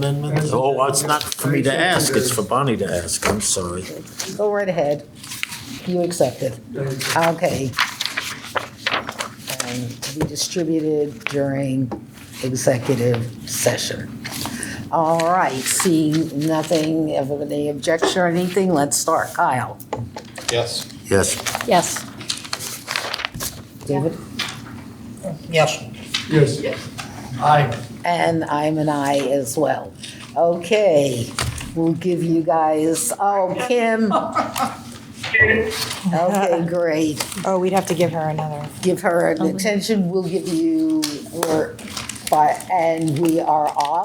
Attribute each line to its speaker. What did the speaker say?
Speaker 1: amendments? Oh, it's not for me to ask, it's for Bonnie to ask, I'm sorry.
Speaker 2: Go right ahead. You accept it. Okay. And to be distributed during executive session. All right, see nothing, if there any objection or anything, let's start. Kyle?
Speaker 3: Yes.
Speaker 1: Yes,
Speaker 2: Yes. David?
Speaker 4: Yes.
Speaker 3: Yes. Aye.
Speaker 2: And I'm an I as well. Okay, we'll give you guys, oh, Kim. Okay, great.
Speaker 5: Oh, we'd have to give her another.
Speaker 2: Give her an extension, we'll give you, or, and we are off.